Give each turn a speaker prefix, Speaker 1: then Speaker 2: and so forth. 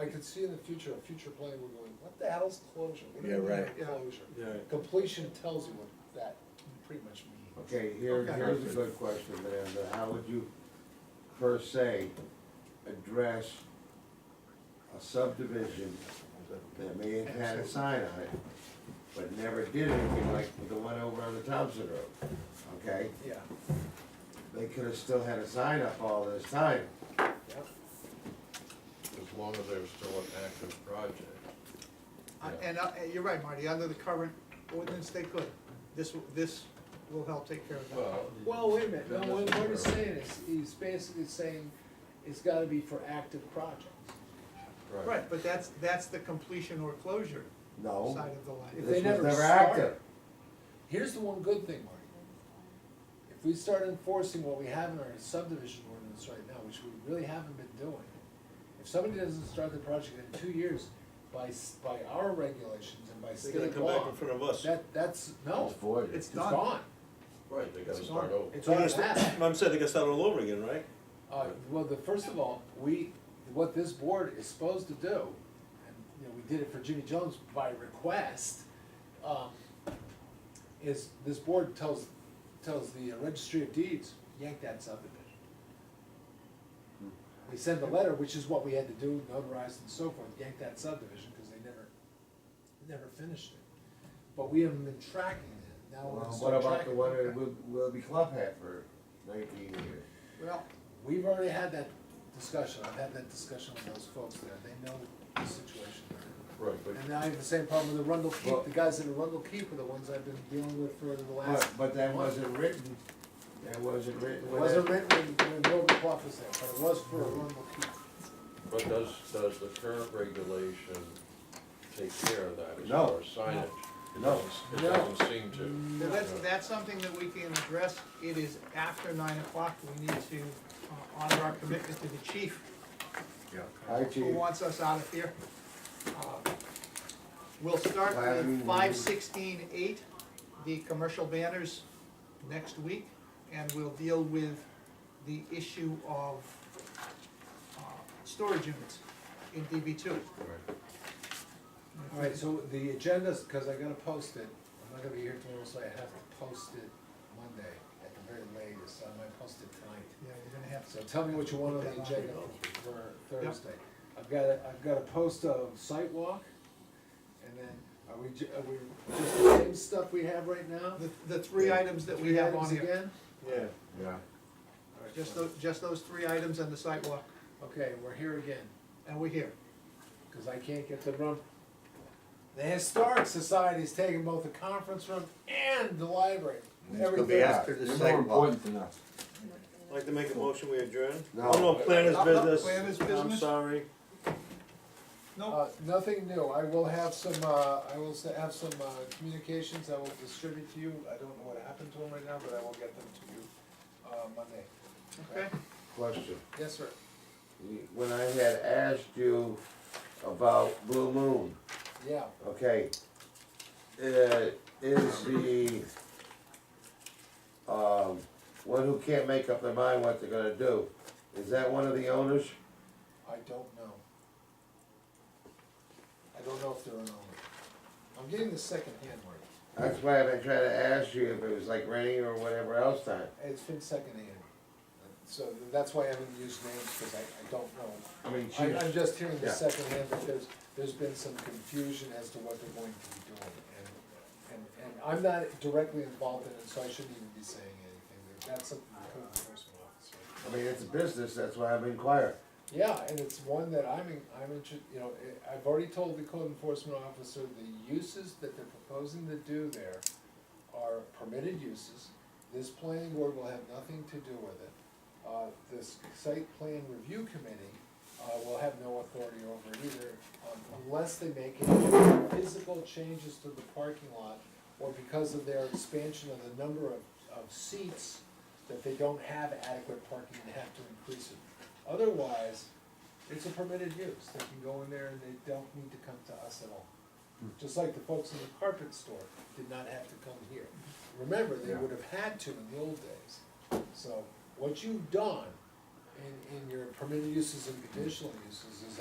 Speaker 1: I could see in the future, a future plan, we're going, what the hell's closure? What do
Speaker 2: Yeah,
Speaker 1: you mean
Speaker 2: right.
Speaker 1: by Closure.
Speaker 3: Yeah.
Speaker 1: Completion tells you what that pretty much means.
Speaker 4: Okay, here,
Speaker 1: Okay.
Speaker 4: here's a good question, Amanda, how would you per se address a subdivision that may have had a sign on it, but never did anything like the one over on the Thompson Road, okay?
Speaker 1: Yeah,
Speaker 4: They could have still had a sign up all this time,
Speaker 1: yeah.
Speaker 5: as long as there's still an active project.
Speaker 6: Uh, And, uh, and you're right, Marty, under the current ordinance, they could. This, will- this will help take care of that.
Speaker 5: Well,
Speaker 7: Well, wait a minute,
Speaker 5: That
Speaker 7: no, what
Speaker 5: doesn't
Speaker 7: what he's
Speaker 5: work.
Speaker 7: saying is, he's basically saying, it's gotta be for active projects.
Speaker 5: right,
Speaker 6: Right, but that's, that's the completion or closure
Speaker 5: Oh.
Speaker 4: no,
Speaker 6: side of the line.
Speaker 7: If they
Speaker 4: this was
Speaker 7: never
Speaker 4: never
Speaker 7: started.
Speaker 4: active.
Speaker 7: Here's the one good thing, Marty.
Speaker 1: If we start enforcing what we have in our subdivision ordinance right now, which we really haven't been doing, if somebody doesn't start the project in two years, by, s- by our regulations and by
Speaker 3: They're
Speaker 1: state law.
Speaker 3: gonna come back in front of us.
Speaker 1: That, that's, no,
Speaker 4: It's voided.
Speaker 1: it's
Speaker 6: It's done.
Speaker 1: gone.
Speaker 5: right, they gotta start over.
Speaker 1: It's
Speaker 3: So I'm
Speaker 1: on
Speaker 3: gonna st- I'm saying they gotta start all over again, right?
Speaker 1: Uh, well, the, first of all, we, what this board is supposed to do, and, you know, we did it for Jimmy Jones by request, um, is this board tells, tells the uh, registry of deeds, yank that subdivision.
Speaker 4: Hmm.
Speaker 1: They send the letter, which is what we had to do, notarized and so forth, yank that subdivision, cause they never, they never finished it. But we haven't been tracking it, now we're
Speaker 4: Well,
Speaker 1: gonna
Speaker 4: What
Speaker 1: start
Speaker 4: about the
Speaker 1: tracking
Speaker 4: one
Speaker 1: it.
Speaker 4: that Wil- Willoughby Club had for nineteen years?
Speaker 6: Well,
Speaker 1: We've already had that discussion, I've had that discussion with those folks there, they know the situation.
Speaker 5: Right, but
Speaker 1: And now I have the same problem with the Rundle
Speaker 4: Well-
Speaker 1: Keep, the guys in Arundel Keep are the ones I've been dealing with for the
Speaker 4: But,
Speaker 1: last.
Speaker 4: but that wasn't written, that wasn't
Speaker 1: It
Speaker 4: written. when
Speaker 1: wasn't
Speaker 4: that-
Speaker 1: written when, when Wilbur Clough was there, but it was for Arundel Keep.
Speaker 5: But does, does the current regulation take care of that as
Speaker 4: No.
Speaker 5: far as signage? It
Speaker 4: No.
Speaker 5: doesn't- It
Speaker 1: No.
Speaker 5: doesn't seem to.
Speaker 6: now that's, that's something that we can address. It is after nine o'clock. We need to uh, honor our commitment to the chief,
Speaker 4: Hi,
Speaker 6: who
Speaker 4: Chief.
Speaker 6: wants us out of here. Uh, We'll start with five sixteen eight, the commercial banners, next week. And we'll deal with the issue of, uh, storage units in DB two.
Speaker 1: Alright, so the agenda's, cause I gotta post it, I'm not gonna be here tomorrow, so I have to post it Monday at the very latest, I might post it tonight.
Speaker 6: Yeah, you're gonna have
Speaker 1: So tell me what you want on the agenda for Thursday. I've got, a have got a post of site walk, and then are we, ju- are we just the same stuff we have right now?
Speaker 6: The, the three items that we
Speaker 1: Three
Speaker 6: have
Speaker 1: items
Speaker 6: on here,
Speaker 1: Again?
Speaker 3: Yeah.
Speaker 4: Yeah.
Speaker 1: Alright,
Speaker 6: just
Speaker 1: fine.
Speaker 6: those, just those three items and the sidewalk,
Speaker 1: Okay, we're here again,
Speaker 6: and we're here.
Speaker 1: cause I can't get the room. The Historic Society's taking both the conference room and the library.
Speaker 2: It's
Speaker 1: Every
Speaker 2: gonna be
Speaker 1: Thursday.
Speaker 2: after the sidewalk.
Speaker 3: I'd Like to make a motion, we adjourn?
Speaker 4: No.
Speaker 3: Oh, no, planners
Speaker 6: No, no,
Speaker 3: business.
Speaker 6: planners
Speaker 3: I'm
Speaker 6: business.
Speaker 3: sorry.
Speaker 6: No,
Speaker 1: Uh, nothing new, I will have some, uh, I will s- have some, uh, communications I will distribute to you, I don't know what happened to them right now, but I will get them to you, uh, Monday.
Speaker 6: okay,
Speaker 4: Question,
Speaker 1: Yes, sir.
Speaker 4: You- when I had asked you about Blue Moon,
Speaker 1: Yeah,
Speaker 4: okay, uh, is the, um, one who can't make up their mind what they're gonna do, is that one of the owners?
Speaker 1: I don't know. I don't know if they're an owner. I'm getting the second hand word,
Speaker 4: That's why I've been trying to ask you if it was like renting or whatever else time.
Speaker 1: it's been second hand. So that's why I haven't used names, cause I, I don't know.
Speaker 4: I mean,
Speaker 1: I, I'm just hearing the
Speaker 4: Yeah.
Speaker 1: second hand that there's, there's been some confusion as to what they're going to be doing. And, and, and I'm not directly involved in it, so I shouldn't even be saying anything, that's something the code enforcement officer.
Speaker 4: I mean, it's a business, that's why I'm inquiring.
Speaker 1: Yeah, and it's one that I'm, in- I'm interested, you know, I- I've already told the code enforcement officer the uses that they're proposing to do there are permitted uses. This planning board will have nothing to do with it. Uh, this site plan review committee, uh, will have no authority over it either, um, unless they make any physical changes to the parking lot or because of their expansion of the number of, of seats, that they don't have adequate parking and have to increase it. Otherwise, it's a permitted use, they can go in there and they don't need to come to us at all. Just like the folks in the carpet store did not have to come here. Remember, they
Speaker 4: Yeah.
Speaker 1: would have had to in the old days. So, what you've done in, in your permitted uses and conditional uses is